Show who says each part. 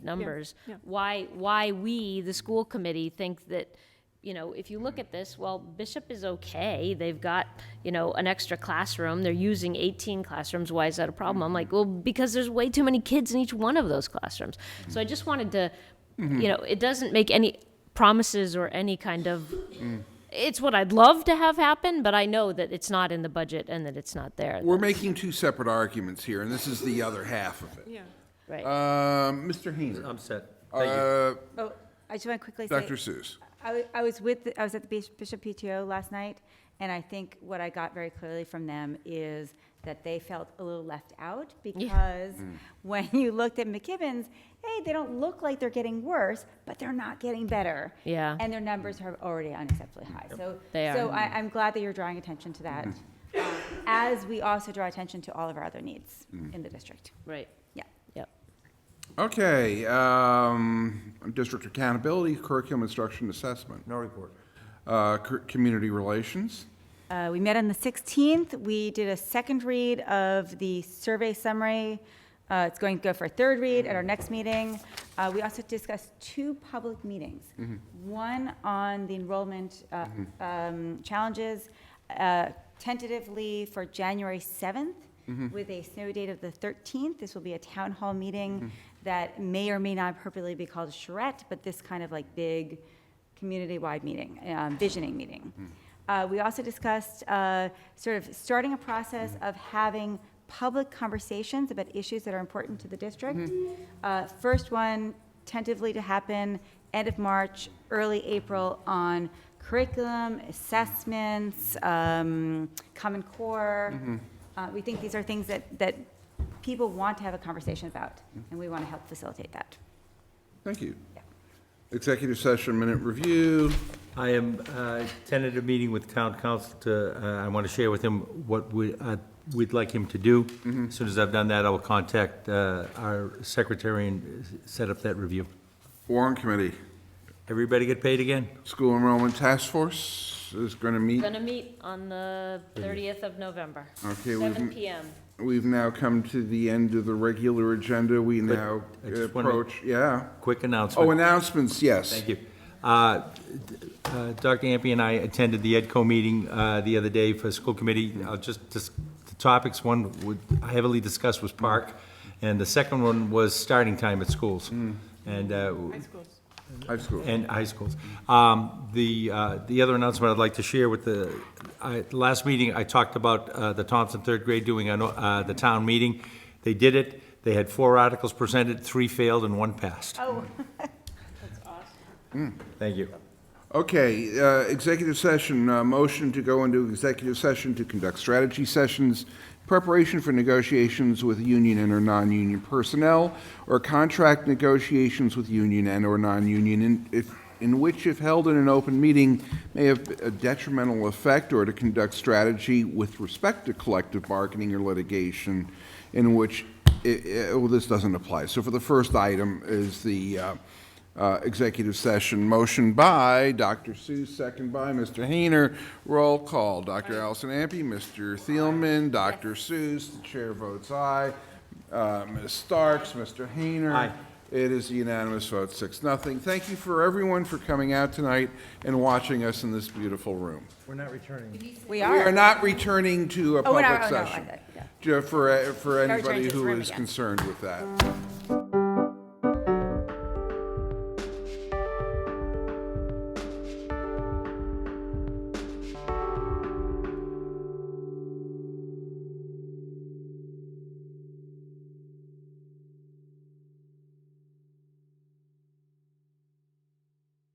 Speaker 1: numbers.
Speaker 2: yeah.
Speaker 1: Why, why we, the school committee, think that, you know, if you look at this, well, Bishop is okay. They've got, you know, an extra classroom. They're using 18 classrooms. Why is that a problem? I'm like, well, because there's way too many kids in each one of those classrooms. So I just wanted to,
Speaker 2: Mm-hmm.
Speaker 1: you know, it doesn't make any promises or any kind of,
Speaker 2: Mm.
Speaker 1: it's what I'd love to have happen, but I know that it's not in the budget and that it's not there.
Speaker 3: We're making two separate arguments here, and this is the other half of it.
Speaker 2: Yeah.
Speaker 1: Right.
Speaker 2: uh,
Speaker 3: Um, Mr. Heenan,
Speaker 4: I'm set. Thank you.
Speaker 3: uh,
Speaker 5: Oh, I just want to quickly say.
Speaker 3: Dr. Seuss.
Speaker 5: I, wa- I was with, the- I was at the Bishop- Bishop PTO last night, and I think what I got very clearly from them is that they felt a little left out because when you looked at McKibben's, hey, they don't look like they're getting worse, but they're not getting better.
Speaker 1: Yeah.
Speaker 5: And their numbers are already unacceptably high. So,
Speaker 1: They
Speaker 5: so
Speaker 1: are.
Speaker 5: I, I'm glad that you're drawing attention to that, uh, as we also draw attention to all of our other needs in the district.
Speaker 1: Right.
Speaker 5: Yeah.
Speaker 1: Yep.
Speaker 3: Okay, um, district accountability, curriculum instruction assessment. No report. Uh, cur- community relations.
Speaker 5: Uh, We met on the 16th. We did a second read of the survey summary. Uh, It's going to go for a third read at our next meeting. Uh, We also discussed two public meetings. One on the enrollment uh, um, challenges uh, tentatively for January 7th with a snow date of the 13th. This will be a town hall meeting that may or may not appropriately be called a charrette, but this kind of like big community-wide meeting, um, visioning meeting.
Speaker 3: Hmm.
Speaker 5: Uh, We also discussed uh, sort of starting a process
Speaker 3: Hmm.
Speaker 5: of having public conversations about issues that are important to the district.
Speaker 3: Hmm.
Speaker 5: Uh, First one tentatively to happen end of March, early April on curriculum, assessments, um, Common Core.
Speaker 3: Mm-hmm.
Speaker 5: Uh, We think these are things that, that people want to have a conversation about,
Speaker 3: Hmm.
Speaker 5: and we want to help facilitate that.
Speaker 3: Thank you.
Speaker 5: Yeah.
Speaker 3: Executive session minute review.
Speaker 4: I am uh, tentative meeting with town council to, uh, I want to share with him what we, uh, we'd like him to do. As Soon as I've done that, I will contact uh, our secretary and set up that review.
Speaker 3: Warren Committee,
Speaker 4: Everybody get paid again?
Speaker 3: School Enrollment Task Force is going to meet.
Speaker 1: Gonna meet on the thirtieth of November,
Speaker 3: Okay, we've
Speaker 1: seven
Speaker 3: m-
Speaker 1: PM.
Speaker 3: We've now come to the end of the regular agenda. We now
Speaker 4: I just wanna-
Speaker 3: approach, yeah.
Speaker 4: Quick announcement.
Speaker 3: Oh, announcements, yes.
Speaker 4: Thank you. Uh, d- uh, Dr. Ampe and I attended the EDCO meeting uh, the other day for school committee. I'll just, dis- the topics, one would heavily discussed was park, and the second one was starting time at schools. And uh,
Speaker 3: High school.
Speaker 4: and high schools. Um, The, uh, the other announcement I'd like to share with the, I- the last meeting, I talked about uh, the Thompson third grade doing an o- uh, the town meeting. They did it. They had four articles presented, three failed and one passed. Oh. That's awesome. Thank you.
Speaker 3: Okay, uh, executive session, uh, motion to go into executive session to conduct strategy sessions, preparation for negotiations with union and or non-union personnel, or contract negotiations with union and or non-union, in- if- in which if held in an open meeting may have a detrimental effect, or to conduct strategy with respect to collective bargaining or litigation, in which, i- i- well, this doesn't apply. So for the first item is the uh, uh, executive session. Motion by Dr. Seuss, second by Mr. Hayner. Roll call, Dr. Allison Ampe, Mr. Thielman, Dr. Seuss, the chair votes aye. Uh, Ms. Starks, Mr. Hayner.
Speaker 4: Aye.
Speaker 3: It is a unanimous vote, six, nothing. Thank you for everyone for coming out tonight and watching us in this beautiful room.
Speaker 5: We
Speaker 3: We
Speaker 5: are.
Speaker 3: are not returning to a
Speaker 5: Oh, we're
Speaker 3: public
Speaker 5: not- oh, no, I
Speaker 3: session.
Speaker 5: thought- yeah.
Speaker 3: Ju- For, for
Speaker 5: returning
Speaker 3: anybody
Speaker 5: to this
Speaker 3: who
Speaker 5: room
Speaker 3: is
Speaker 5: again.
Speaker 3: concerned with that.